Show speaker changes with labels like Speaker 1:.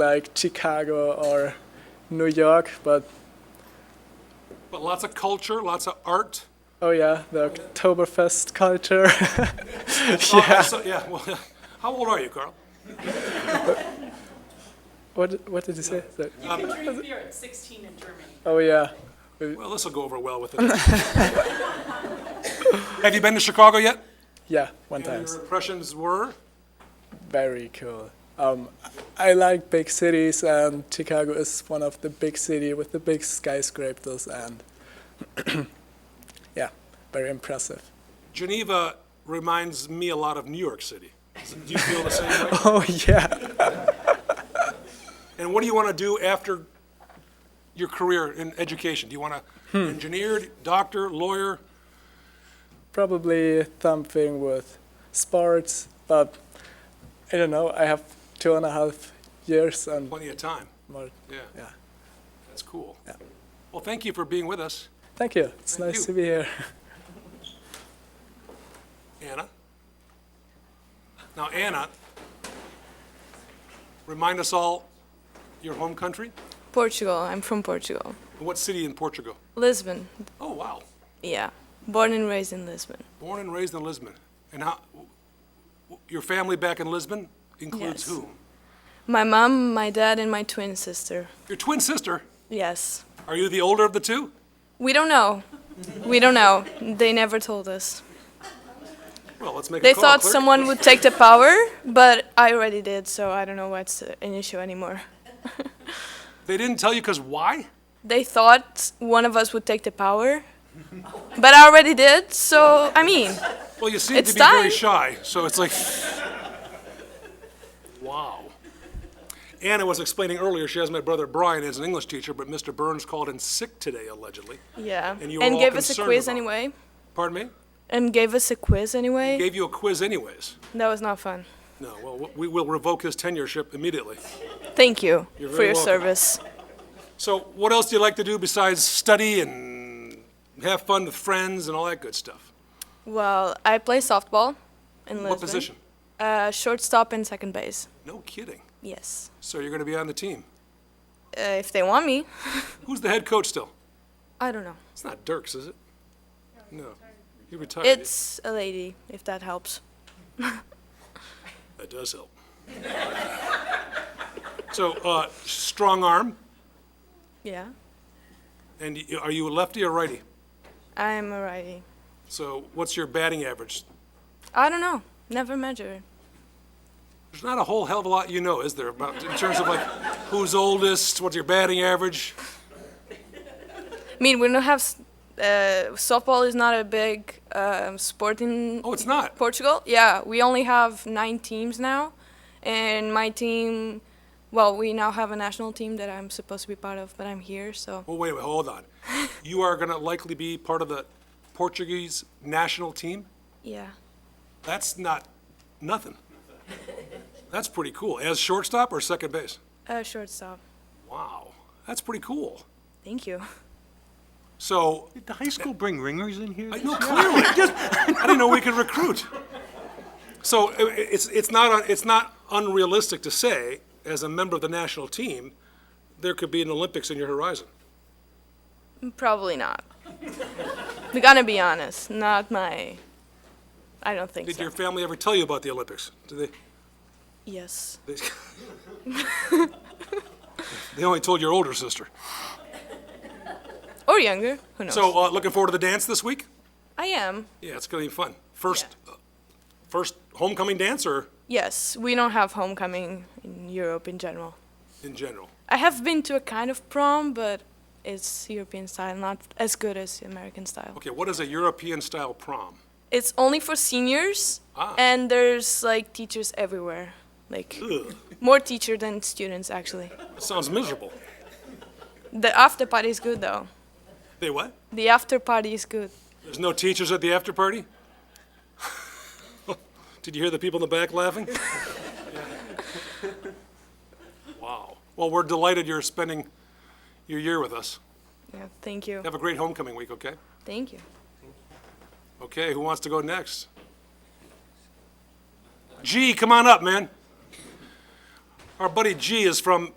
Speaker 1: like Chicago or New York, but
Speaker 2: But lots of culture, lots of art.
Speaker 1: oh yeah, the Oktoberfest culture.
Speaker 2: Oh, I saw- yeah. Well, how old are you, Carl?
Speaker 1: what what did you say? Sorry.
Speaker 3: You can drink beer at 16 in Germany.
Speaker 1: Oh yeah,
Speaker 2: Well, this will go over well with it. Have you been to Chicago yet?
Speaker 1: yeah, one
Speaker 2: And
Speaker 1: times.
Speaker 2: Your impressions were?
Speaker 1: Very cool. Um, I like big cities, and Chicago is one of the big city with the big skyscrapers, and yeah, very impressive.
Speaker 2: Geneva reminds me a lot of New York City. Do you feel the same way?
Speaker 1: Oh yeah.
Speaker 2: And what do you want to do after your career in education? Do you want to engineer, doctor, lawyer?
Speaker 1: probably something with sports, but I don't know. I have two and a half years and
Speaker 2: Plenty of time.
Speaker 1: more.
Speaker 2: Yeah,
Speaker 1: Yeah.
Speaker 2: that's cool. Well, thank you for being with us,
Speaker 1: Thank you. It's
Speaker 2: Thank
Speaker 1: nice
Speaker 2: you.
Speaker 1: to be here.
Speaker 2: Anna. Now, Anna, remind us all your home country
Speaker 4: Portugal. I'm from Portugal.
Speaker 2: and what city in Portugal?
Speaker 4: Lisbon.
Speaker 2: Oh, wow.
Speaker 4: Yeah. Born and raised in Lisbon.
Speaker 2: Born and raised in Lisbon. And how, your family back in Lisbon includes
Speaker 4: Yes.
Speaker 2: whom?
Speaker 4: My mom, my dad, and my twin sister.
Speaker 2: Your twin sister.
Speaker 4: Yes.
Speaker 2: Are you the older of the two?
Speaker 4: We don't know. We don't know. They never told us.
Speaker 2: Well, let's make a
Speaker 4: They
Speaker 2: call.
Speaker 4: thought
Speaker 2: clerk.
Speaker 4: someone would take the power, but I already did, so I don't know what's an issue anymore.
Speaker 2: They didn't tell you because why?
Speaker 4: They thought one of us would take the power, but I already did, so I mean,
Speaker 2: Well, you seem
Speaker 4: It's
Speaker 2: to be very
Speaker 4: time.
Speaker 2: shy, so it's like, wow. Anna was explaining earlier she has my brother Brian as an English teacher, but Mr. Burns called in sick today allegedly.
Speaker 4: yeah.
Speaker 2: And you were all
Speaker 4: gave us a
Speaker 2: concerned
Speaker 4: quiz
Speaker 2: about it.
Speaker 4: anyway.
Speaker 2: Pardon me?
Speaker 4: And gave us a quiz anyway.
Speaker 2: Gave you a quiz anyways.
Speaker 4: That was not fun.
Speaker 2: No, well, w- we will revoke his tenureship immediately.
Speaker 4: Thank you for
Speaker 2: very
Speaker 4: your
Speaker 2: welcome.
Speaker 4: service.
Speaker 2: So, what else do you like to do besides study and have fun with friends and all that good stuff?
Speaker 4: Well, I play softball in Lisbon.
Speaker 2: What position?
Speaker 4: Uh, shortstop and second base.
Speaker 2: No kidding.
Speaker 4: Yes.
Speaker 2: So you're going to be on the team.
Speaker 4: Uh, if they want me,
Speaker 2: Who's the head coach still?
Speaker 4: I don't know.
Speaker 2: It's not Dirks, is it? No. He retired.
Speaker 4: It's a lady, if that helps.
Speaker 2: That does help. So, uh, strong arm,
Speaker 4: Yeah.
Speaker 2: and y- are you a lefty or righty?
Speaker 4: I'm a righty.
Speaker 2: So, what's your batting average?
Speaker 4: I don't know. Never measure.
Speaker 2: There's not a whole hell of a lot you know, is there, about, in terms of like, who's oldest, what's your batting average?
Speaker 4: I mean, we don't have. s- Uh, softball is not a big um, sport in
Speaker 2: Oh, it's not.
Speaker 4: Portugal. Yeah, we only have nine teams now, and my team. Well, we now have a national team that I'm supposed to be part of, but I'm here, so.
Speaker 2: Well, wait a minute, hold on. You are gonna likely be part of the Portuguese national team?
Speaker 4: Yeah.
Speaker 2: That's not nothing. That's pretty cool. As shortstop or second base?
Speaker 4: Uh, shortstop.
Speaker 2: Wow, that's pretty cool.
Speaker 4: Thank you.
Speaker 2: So,
Speaker 5: Did the high school bring ringers in here?
Speaker 2: I know clearly. I didn't know we could recruit. So i- i- it's, it's not, un- it's not unrealistic to say, as a member of the national team, there could be an Olympics in your horizon.
Speaker 4: Probably not. We're gonna be honest. Not my. I don't think
Speaker 2: Did
Speaker 4: so.
Speaker 2: your family ever tell you about the Olympics? Did they?
Speaker 4: yes.
Speaker 2: They They only told your older sister.
Speaker 4: Or younger. Who knows?
Speaker 2: So, uh, looking forward to the dance this week?
Speaker 4: I am.
Speaker 2: Yeah, it's gonna be fun. First, uh, first homecoming dance or
Speaker 4: Yes. We don't have homecoming in Europe in general.
Speaker 2: in general?
Speaker 4: I have been to a kind of prom, but it's European style, not as good as American style.
Speaker 2: Okay, what is a European-style prom?
Speaker 4: It's only for seniors,
Speaker 2: Ah.
Speaker 4: and there's like teachers everywhere. Like
Speaker 2: Ugh,
Speaker 4: more teacher than students actually.
Speaker 2: sounds miserable.
Speaker 4: The after party is good though.
Speaker 2: They what?
Speaker 4: The after party is good.
Speaker 2: There's no teachers at the after party? Did you hear the people in the back laughing? Wow. Well, we're delighted you're spending your year with us.
Speaker 4: Yeah. Thank you.
Speaker 2: Have a great homecoming week, okay?
Speaker 4: Thank you.
Speaker 2: Okay, who wants to go next? G, come on up, man. Our buddy G is from